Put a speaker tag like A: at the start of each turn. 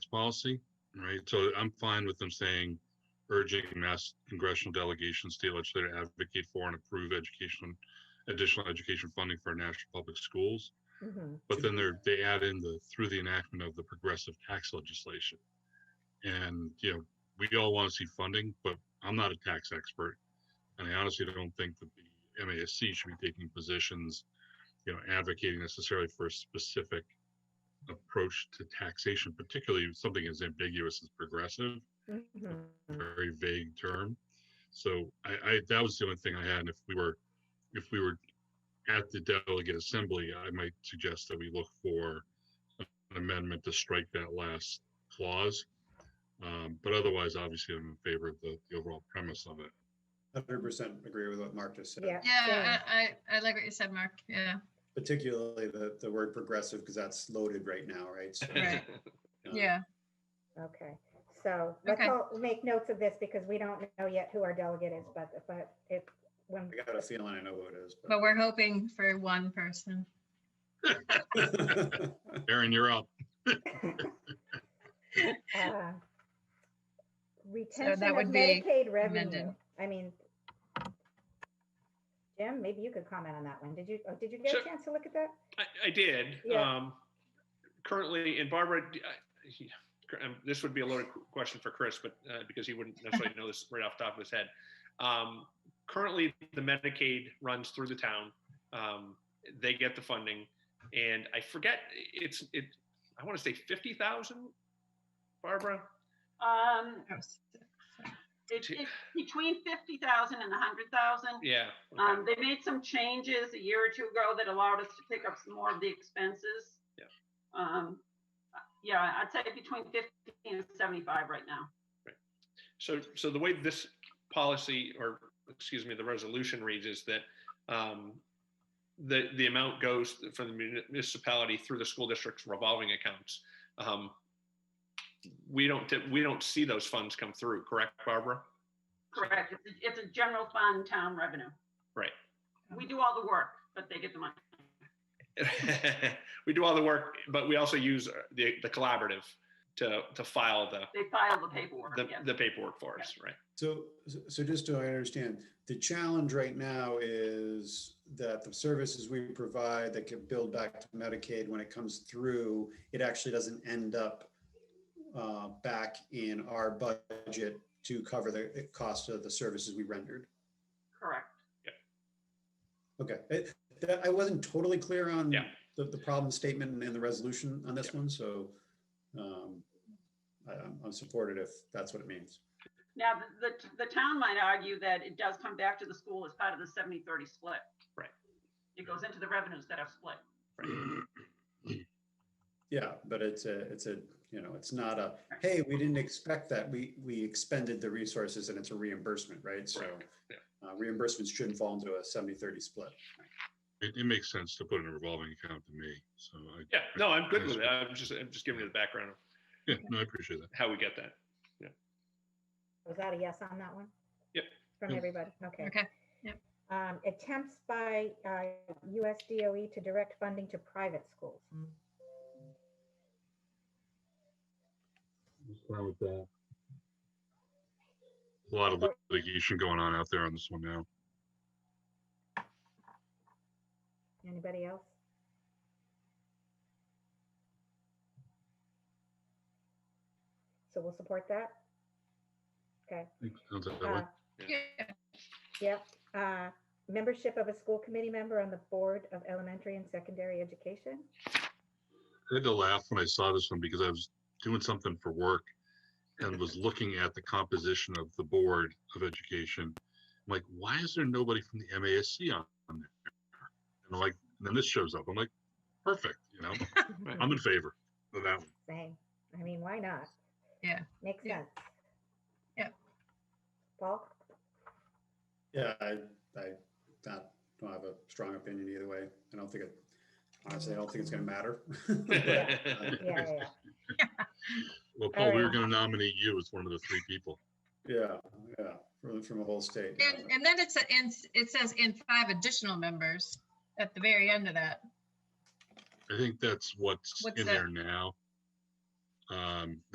A: policy, right? So I'm fine with them saying urging mass congressional delegations, state legislature to advocate for and approve education, additional education funding for our national public schools.
B: Mhm.
A: But then they're, they add in the, through the enactment of the progressive tax legislation. And, you know, we all want to see funding, but I'm not a tax expert. And I honestly don't think that the MASC should be taking positions, you know, advocating necessarily for a specific approach to taxation, particularly if something as ambiguous as progressive, a
B: Mhm.
A: very vague term. So I, I, that was the only thing I had. And if we were, if we were at the delegate assembly, I might suggest that we look for an amendment to strike that last clause. Um, but otherwise, obviously, I'm in favor of the, the overall premise of it.
C: Hundred percent agree with what Mark just said,
B: Yeah.
D: Yeah,
B: same.
D: I, I, I like what you said, Mark. Yeah.
C: particularly the, the word progressive, because that's loaded right now, right? So,
D: Right.
C: uh,
D: Yeah.
B: Okay, so let's
D: Okay.
B: all make notes of this because we don't know yet who our delegate is, but, but if, when,
C: I got a feeling I know who it is.
D: But we're hoping for one person.
C: but-
A: Aaron, you're up.
B: uh, retention of
D: would be
B: Medicaid revenue,
D: amended.
B: I mean, Jim, maybe you could comment on that one. Did you, oh, did you get a
E: Sure.
B: chance to look at that?
E: I, I did.
B: Yeah.
E: Um, currently, and Barbara, d- I- um, this would be a loaded question for Chris, but uh, because he wouldn't necessarily know this right off the top of his head. Um, currently, the Medicaid runs through the town. Um, they get the funding, and I forget it's it. I want to say fifty thousand. Barbara,
F: Um, it's,
E: Two.
F: it's between fifty thousand and a hundred thousand.
E: yeah. okay.
F: Um, they made some changes a year or two ago that allowed us to pick up some more of the expenses.
E: Yeah.
F: Um, yeah, I'd say between fifty and seventy-five right now.
E: So, so the way this policy, or excuse me, the resolution reads is that um, the, the amount goes from the municipality through the school district's revolving accounts. Um, We don't, ti- we don't see those funds come through, correct, Barbara?
F: Correct. It's a- It's a general fund town revenue.
E: Right.
F: We do all the work, but they get the money.
E: We do all the work, but we also use the, the collaborative to, to file the,
F: They file the paperwork,
E: the-
F: yes.
E: the paperwork for us, right?
C: So, so just so I understand, the challenge right now is that the services we provide that can build back to Medicaid, when it comes through, it actually doesn't end up uh, back in our budget to cover the cost of the services we rendered.
F: Correct.
C: Okay, It- that- I wasn't totally clear on
E: Yeah.
C: the, the problem statement and the resolution on this one, so um, I- I'm I'm supportive if that's what it means.
F: Now, the, the, the town might argue that it does come back to the school as part of the 70-30 split.
E: Right.
F: It goes into the revenues that are split.
C: Yeah, but it's a, it's a, you know, it's not a, hey, we didn't expect that. We, we expended the resources and it's a reimbursement, right? So
E: Correct, yeah.
C: uh, reimbursements shouldn't fall into a 70, 30 split.
A: It, it makes sense to put in a revolving account to me. So I,
E: Yeah, no, I'm good with it. I'm just, I'm just giving you the background of
A: yeah, no, I appreciate that.
E: how we get that.
B: Was that a yes on that one?
E: Yep.
B: From
A: Yep.
B: everybody, okay.
D: Okay, yep.
B: Um, attempts by, uh, USDOE E to direct funding to private schools.
A: Fine with that. A lot of litigation going on out there on this one now.
B: Anybody else? So we'll support that? Okay,
A: Sounds that way.
B: uh,
D: Yeah.
B: yep, uh, membership of a school committee member on the Board of Elementary and Secondary Education?
A: I had to laugh when I saw this one because I was doing something for work and was looking at the composition of the Board of Education. I'm like, why is there nobody from the MASC on on there? And I'm like, and then this shows up. I'm like, perfect, you know, I'm in favor of that one.
B: Same, I mean, why not?
D: Yeah.
B: Makes
D: Yeah.
B: sense.
D: Yep.
B: Paul?
C: Yeah, I, I not, don't have a strong opinion either way. I don't think it, honestly, I don't think it's gonna matter.
B: Yeah, yeah, yeah.
A: Well, Paul, we were
B: Alright.
A: gonna nominate you as one of the three people.
C: Yeah, yeah, from, from a whole state. yeah.
D: And, and then it's, a- and s- it says in five additional members at the very end of that.
A: I think that's what's
D: What's
A: in
D: that?
A: there now. Um,